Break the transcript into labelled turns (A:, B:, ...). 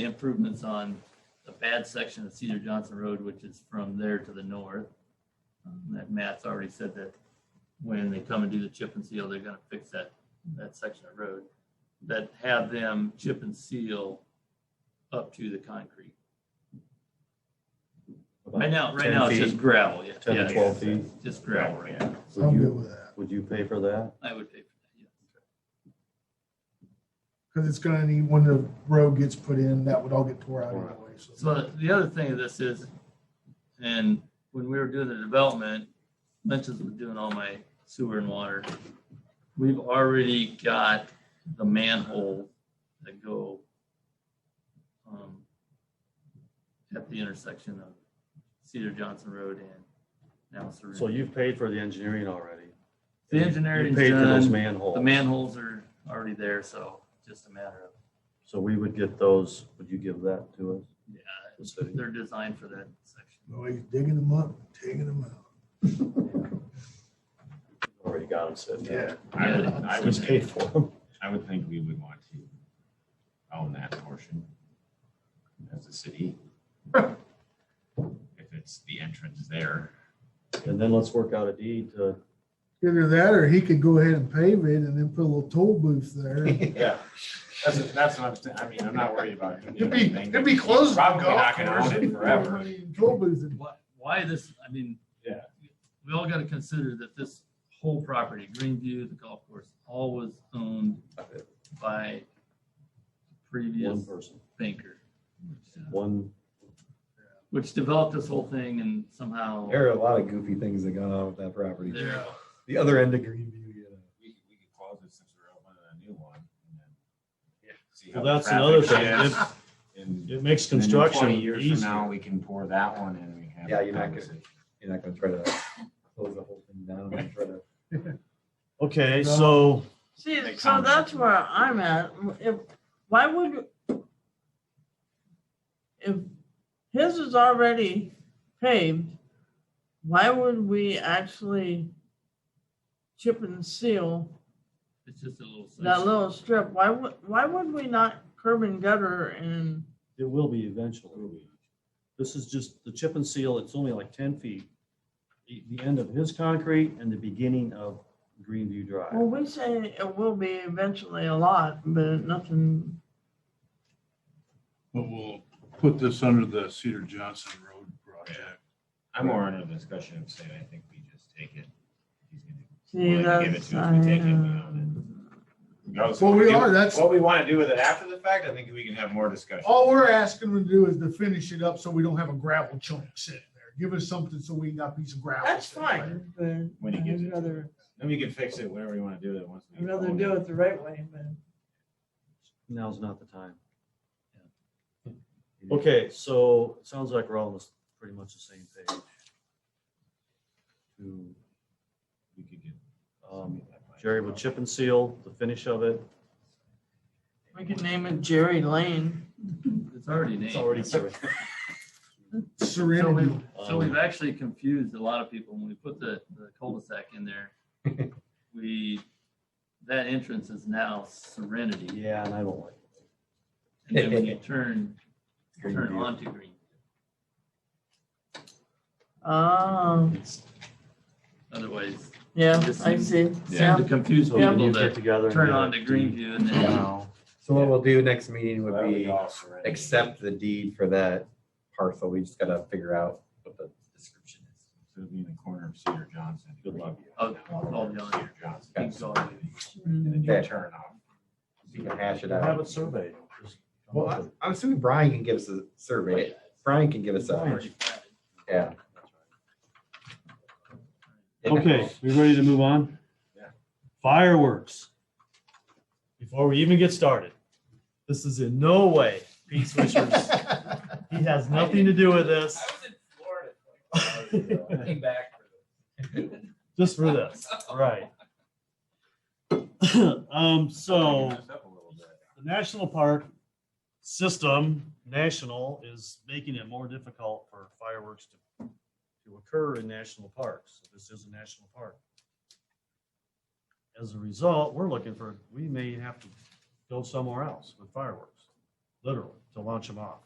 A: the improvements on the bad section of Cedar Johnson Road, which is from there to the north. Um, That Matt's already said that when they come and do the chip and seal, they're gonna fix that, that section of road. That have them chip and seal up to the concrete. Right now, right
B: 10
A: now, it's just
B: feet,
A: gravel, yeah.
B: 10 to
A: yeah,
B: 12 feet.
A: Just gravel right now.
C: I'm
B: Would
C: good
B: you,
C: with that,
B: would you pay for that?
A: I would pay for that, yeah.
C: because it's gonna need, when the road gets put in, that would all get tore out anyway, so.
A: So the other thing of this is, and when we were doing the development, Lynch's was doing all my sewer and water. We've already got the manhole that go um, at the intersection of Cedar Johnson Road and now
B: So
A: Serene.
B: you've paid for the engineering already.
A: The engineering
B: You
A: is
B: paid for those
A: done. The
B: manholes.
A: manholes are already there, so just a matter of,
B: So we would get those, would you give that to us?
A: yeah,
B: the city?
A: they're designed for that section.
C: Well, he's digging them up, taking them out.
B: Already got them set down.
D: I would, I
B: Who's
D: would,
B: paid
D: think-
B: for them?
D: I would think we would want to own that portion as a city. If it's the entrance there.
B: And then let's work out a deed to.
C: Either that, or he could go ahead and pave it and then put a little toll booth there.
D: Yeah. That's, that's what I'm, saying. I mean, I'm not worried about. doing
C: It'd be-
D: anything.
C: it'd be closed to
D: Probably
C: golf
D: not gonna own it forever.
C: Toll booth, and-
A: Why, why this, I mean.
D: Yeah.
A: We all gotta consider that this whole property, Greenview, the golf course, all was owned by
B: One
A: previous
B: person,
A: banker. which, uh,
B: one,
A: Which developed this whole thing and somehow
E: There are a lot of goofy things that gone on with that property.
A: there,
E: The other end of Greenview, you know.
D: We could, we could close it since we're opening a new one. and then see how
F: Well,
D: the
F: that's another thing.
D: traffic is,
F: It,
D: and
F: it makes
D: then in
F: construction
D: 20 Years from now,
F: easier.
D: we can pour that one in and we have.
E: Yeah,
D: a
E: you're not gonna-
D: conversation.
E: You're not gonna try to close the whole thing down and try to.
F: Okay, so
G: See,
D: Make
G: so
D: comments.
G: that's where I'm at. If, why would, if his is already paved, why would we actually chip and seal
A: it's just a little.
G: that
A: section.
G: little strip? Why would, why would we not curb and gutter and,
B: it will be eventually. This is just the chip and seal, it's only like ten feet. The, the end of his concrete and the beginning of Greenview
G: well,
B: Drive.
G: we say it will be eventually a lot, but nothing,
H: But we'll put this under the Cedar Johnson Road project.
D: I'm more under the discussion of saying, I think we just take it. He's gonna
G: see,
D: Well, they give it
G: that's.
D: to us, we take it, we
G: I, uh,
D: own it. Regardless of
C: Well,
D: what
C: we
D: do-
C: are, that's-
D: What we want to do with it after the fact, I think we can have more discussion.
C: all we're asking them to do is to finish it up so we don't have a gravel chunk sitting there. Give us something so we can got a piece of gravel.
G: That's
C: sitting there.
G: fine, but
D: When he gives it
G: I'd
D: to us.
G: rather,
D: Then we can fix it whatever we want to do with it once. we
G: I'd rather
D: own
G: do it the right way, but.
B: Now's not the time.
E: you know,
B: Okay, so it sounds like we're all on this- pretty much the same page. To,
D: We could get
B: um,
D: somebody that might-
B: Jerry with chip and seal, the finish of it.
G: We could name it Jerry Lane.
A: It's already named.
B: It's already.
A: So
C: Serenity.
A: we've, so
B: Um,
A: we've actually confused a lot of people. When we put the, the cul-de-sac in there, we, that entrance is now Serenity.
B: Yeah, and I don't like it.
A: And then when you turn, turn
E: Greenview.
A: onto Green,
G: Oh,
A: otherwise,
G: yeah,
A: Just
G: I see.
A: seem to
G: Yeah.
A: confuse
B: So
G: Yeah.
B: when
A: people
B: you get
A: that
B: together. and
A: turn
B: do
A: onto
B: it,
A: Greenview and
B: you
A: then,
B: know,
E: So what we'll do next meeting
D: Well, that
E: would
D: would
E: be
D: all surrender.
E: accept the deed for that parcel. We just gotta figure out what the description is.
D: So it'd be in the corner of Cedar Johnson.
B: Good luck.
A: Oh, oh, John.
D: Cedar Johnson.
A: Keep going.
D: And then you
E: Okay.
D: turn off.
E: You can hash it
B: Have
E: out.
B: it surveyed. Just come
E: Well,
B: up
E: I-
B: with-
E: I'm assuming Brian can give us a survey. Brian can give us a,
B: Brian.
E: yeah.
B: Okay, we ready to move on?
D: Yeah.
F: Fireworks. Before we even get started, this is in no way Pete Swisher's. He has nothing to do with this,
A: Came back.
F: just for this, right? Um, so.
D: Turn this up a little bit.
F: the national park system, national, is making it more difficult for fireworks to, to occur in national parks. This is a national park. As a result, we're looking for, we may have to go somewhere else with fireworks. literally, to launch them off.